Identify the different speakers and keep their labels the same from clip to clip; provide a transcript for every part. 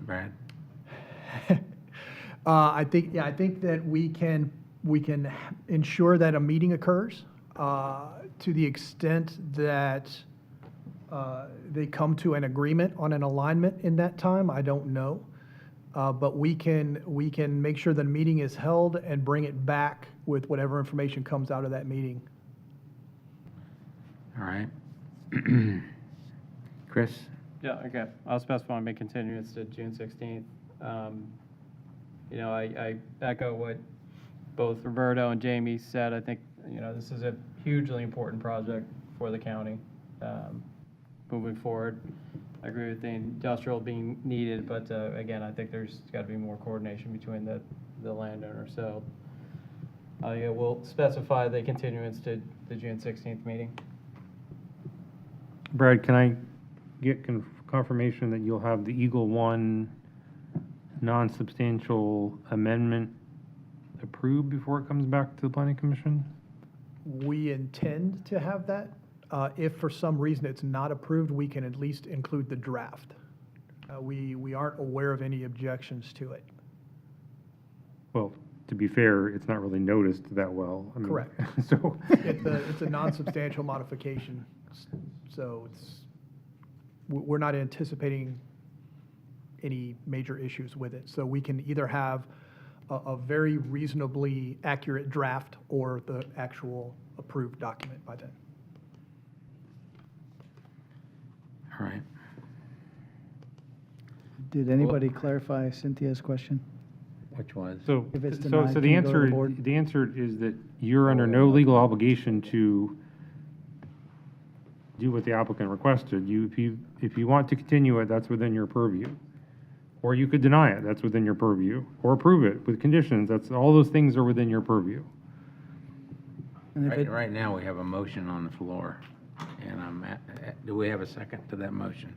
Speaker 1: Brad?
Speaker 2: Uh, I think, yeah, I think that we can, we can ensure that a meeting occurs uh, to the extent that uh, they come to an agreement on an alignment in that time, I don't know. Uh, But we can, we can make sure the meeting is held and bring it back with whatever information comes out of that meeting.
Speaker 1: All right. Chris?
Speaker 3: Yeah, okay. I'll specify my continuance to June sixteenth. Um, You know, I, I echo what both Roberto and Jamie said. I think, you know, this is a hugely important project for the county, um, moving forward. I agree with the industrial being needed, but, uh, again, I think there's gotta be more coordination between the, the landowner, so. Uh, yeah, we'll specify the continuance to the June sixteenth meeting.
Speaker 4: Brad, can I get con- confirmation that you'll have the Eagle One non-substantial amendment approved before it comes back to the planning commission?
Speaker 2: We intend to have that. Uh, If for some reason it's not approved, we can at least include the draft. Uh, We, we aren't aware of any objections to it.
Speaker 4: Well, to be fair, it's not really noticed that well. I mean,
Speaker 2: Correct.
Speaker 4: So.
Speaker 2: It's a, it's a non-substantial modification, s- so it's, we- we're not anticipating any major issues with it. So we can either have a, a very reasonably accurate draft or the actual approved document by then.
Speaker 1: All right.
Speaker 5: Did anybody clarify Cynthia's question?
Speaker 1: Which was?
Speaker 4: So,
Speaker 5: If it's
Speaker 4: so,
Speaker 5: denied,
Speaker 4: so
Speaker 5: can
Speaker 4: the
Speaker 5: you go to the
Speaker 4: answer,
Speaker 5: board?
Speaker 4: the answer is that you're under no legal obligation to do what the applicant requested. You, if you, if you want to continue it, that's within your purview. Or you could deny it, that's within your purview, or approve it with conditions, that's, all those things are within your purview.
Speaker 5: And if
Speaker 1: Right,
Speaker 5: it,
Speaker 1: right now, we have a motion on the floor, and I'm, at- at- do we have a second to that motion?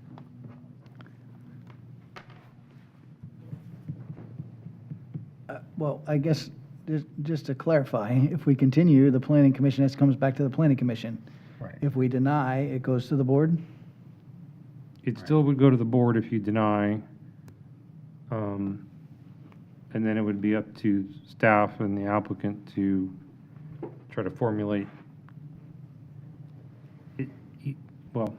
Speaker 5: uh, well, I guess, just- just to clarify, if we continue, the planning commission, this comes back to the planning commission.
Speaker 1: Right.
Speaker 5: If we deny, it goes to the board?
Speaker 4: It still would go to the board if you deny. um, And then it would be up to staff and the applicant to try to formulate. it- e- Well,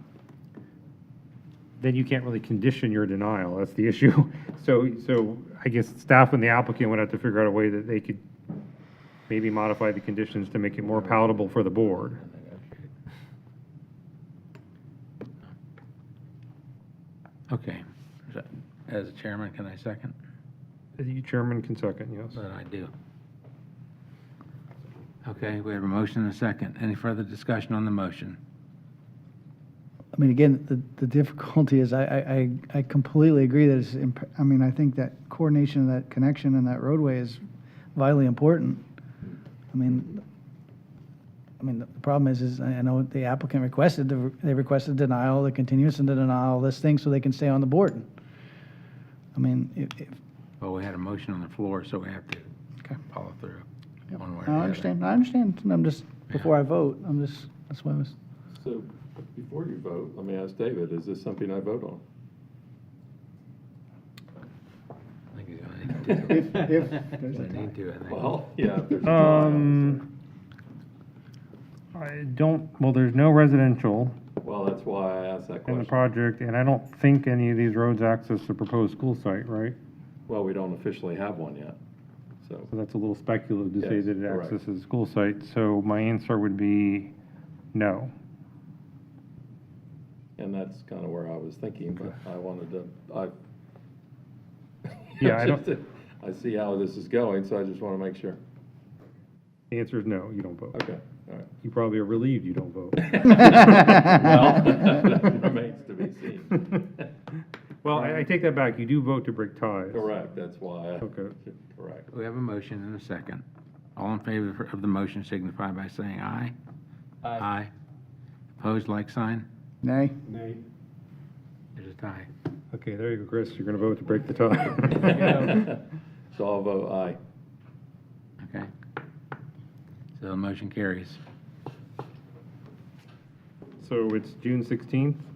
Speaker 4: then you can't really condition your denial, that's the issue. So, so I guess staff and the applicant would have to figure out a way that they could maybe modify the conditions to make it more palatable for the board.
Speaker 1: Okay. So, As a chairman, can I second?
Speaker 4: The chairman can second, yes.
Speaker 1: That I do. Okay, we have a motion and a second. Any further discussion on the motion?
Speaker 5: I mean, again, the, the difficulty is, I, I, I- I completely agree that it's, imp- I mean, I think that coordination, that connection and that roadway is vitally important. I mean, I mean, the problem is, is I I know the applicant requested, the re- they requested denial, the continuance and the denial, this thing, so they can stay on the board. I mean, if, if,
Speaker 1: Well, we had a motion on the floor, so we have to
Speaker 5: Okay.
Speaker 1: follow through. one way or the
Speaker 5: I
Speaker 1: other.
Speaker 5: understand, I understand, I'm just, before I vote, I'm just, that's why I was,
Speaker 6: So before you vote, let me ask David, is this something I vote on?
Speaker 1: I think he's gonna need to.
Speaker 5: If- if
Speaker 1: He's
Speaker 5: there's a
Speaker 1: gonna need to, I think.
Speaker 6: Well, yeah, if there's a tie, obviously.
Speaker 4: Um, I don't, well, there's no residential
Speaker 6: Well, that's why I asked that
Speaker 4: in the
Speaker 6: question.
Speaker 4: project, and I don't think any of these roads access the proposed school site, right?
Speaker 6: Well, we don't officially have one yet, so.
Speaker 4: So that's a little speculative to say
Speaker 6: Yes,
Speaker 4: that it
Speaker 6: correct.
Speaker 4: accesses the school site, so my answer would be no.
Speaker 6: And that's kind of where I was thinking, but I wanted to, I.
Speaker 4: Yeah, I don't-
Speaker 6: Just, I see how this is going, so I just want to make sure.
Speaker 4: The answer is no, you don't vote.
Speaker 6: Okay, all right.
Speaker 4: You probably are relieved you don't vote.
Speaker 6: Well, that remains to be seen.
Speaker 4: Well, I, I take that back, you do vote to break ties.
Speaker 6: Correct, that's why. I-
Speaker 4: Okay.
Speaker 6: Correct.
Speaker 1: We have a motion and a second. All in favor of the motion signify by saying aye. Aye. Opposed, like sign?
Speaker 5: nay?
Speaker 1: It is a tie.
Speaker 4: Okay, there you go, Chris, you're gonna vote to break the tie.
Speaker 6: So I'll vote aye.
Speaker 1: Okay. So the motion carries.
Speaker 4: So it's June sixteenth?